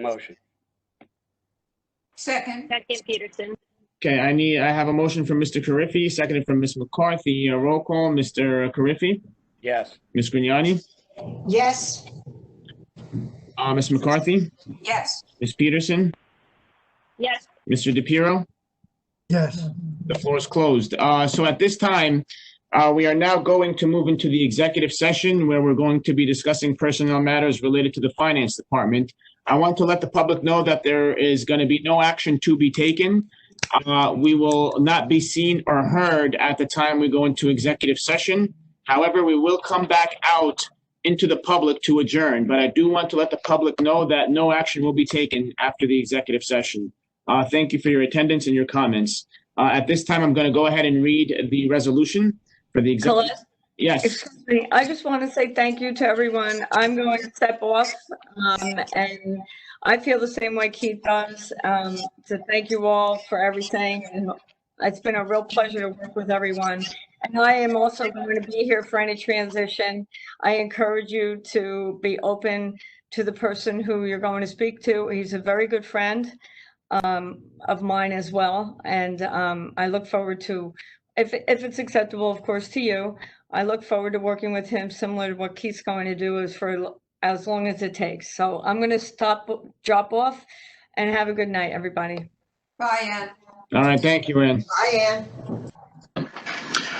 Motion. Second, Second Peterson. Okay, I need, I have a motion from Mr. Carriffy, seconded from Ms. McCarthy. A roll call, Mr. Carriffy, Yes. Ms. Grignani, yes, uh, Ms. McCarthy, yes, Ms. Peterson, Yes, Mr. DePiero. Yes, The floor is closed. Uh, so at this time, uh, we are now going to move into the executive session where we're going to be discussing personnel matters related to the finance department. I want to let the public know that there is going to be no action to be taken. Uh, we will not be seen or heard at the time we go into executive session. However, we will come back out into the public to adjourn, but I do want to let the public know that no action will be taken after the executive session. Uh, thank you for your attendance and your comments. Uh, At this time, I'm going to go ahead and read the resolution for the executive. Celeste, Yes, excuse me, I just want to say thank you to everyone. I'm going to step off, um, and I feel the same way Keith does. Um, so thank you all for everything, and it's been a real pleasure to work with everyone. And I am also going to be here for any transition. I encourage you to be open to the person who you're going to speak to. He's a very good friend, um, of mine as well, and, um, I look forward to, if, if it's acceptable, of course, to you, I look forward to working with him, similar to what Keith's going to do is for l- as long as it takes. So I'm going to stop, drop off and have a good night, everybody. bye, Ann. all right, thank you, Ann. Bye, Ann.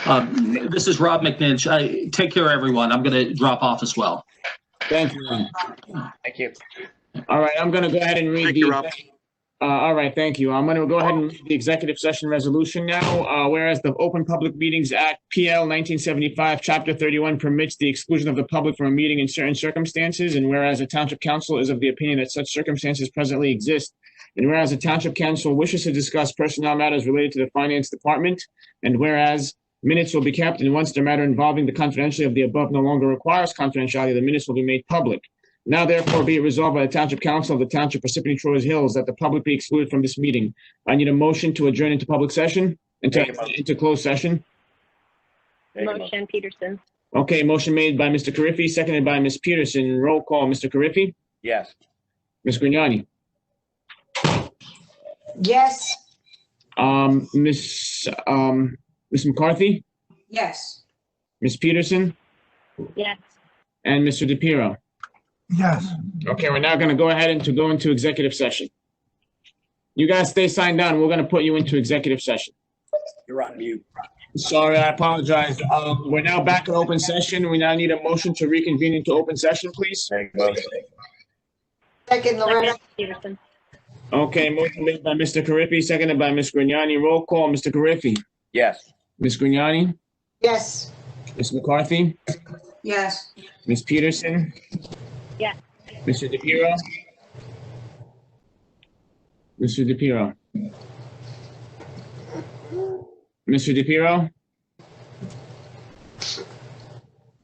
Um, This is Rob McNinch. I, take care, everyone. I'm going to drop off as well. Thank you, Ann. Thank you. All right, I'm going to go ahead and read Thank the. you, Rob. Uh, All right, thank you. I'm going to go ahead and read the executive session resolution now. Uh, Whereas the Open Public Meetings Act, PL 1975, Chapter 31 permits the exclusion of the public from a meeting in certain circumstances, and whereas the Township Council is of the opinion that such circumstances presently exist, and whereas the Township Council wishes to discuss personnel matters related to the Finance Department, and whereas minutes will be kept, and once the matter involving the confidentiality of the above no longer requires confidentiality, the minutes will be made public. Now therefore be it resolved by the Township Council of the Township Parsippany Troy Hills that the public be excluded from this meeting. I need a motion to adjourn into public session, into, Make a motion. into closed session. Take a motion. motion Peterson. Okay, motion made by Mr. Carriffy, seconded by Ms. Peterson. Roll call, Mr. Carriffy, Yes. Ms. Grignani, Yes, um, Ms., um, Ms. McCarthy, yes, Ms. Peterson, Yes, and Mr. DePiero. yes. Okay, we're now gonna go ahead and to go into executive session. You guys stay signed on. We're gonna put you into executive session. You're on mute. Sorry, I apologize. Um, we're now back in open session. We now need a motion to reconvene into open session, please. Make a motion. second, Loretta, second Peterson. Okay, motion made by Mr. Carriffy, seconded by Ms. Grignani. Roll call, Mr. Carriffy, Yes. Ms. Grignani, yes, Ms. McCarthy, yes, Ms. Peterson. Yes. Mr. DePiero. Mr. DePiero. Mr. DePiero.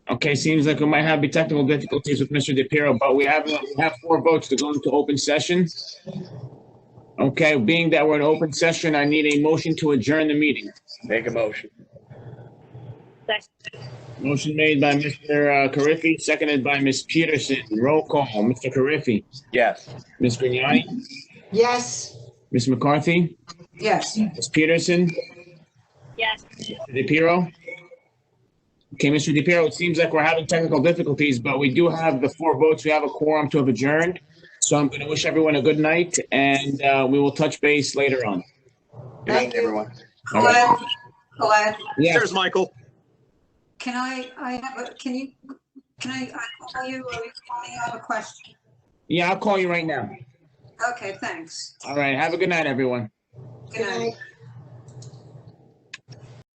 Okay, seems like we might have technical difficulties with Mr. DePiero, but we have, we have four votes to go into open session. Okay, being that we're in open session, I need a motion to adjourn the meeting. Make a motion. Second Motion made by Mr. uh, Carriffy, seconded by Ms. Peterson. Roll call, Mr. Carriffy. Yes. Ms. Grignani, yes, Ms. McCarthy, yes. Ms. Peterson, Yes, Mr. DePiero. Okay, Mr. DePiero, it seems like we're having technical difficulties, but we do have the four votes. We have a quorum to have adjourned. So I'm going to wish everyone a good night and uh, we will touch base later on. Good night, Thank you. everyone. Colette, Colette, Yes, Cheers, Michael. can I, I have, a can you, can I, I call you, or you call me, I have a question? yeah, I'll call you right now. Okay, thanks. All right, have a good night, everyone. Good night.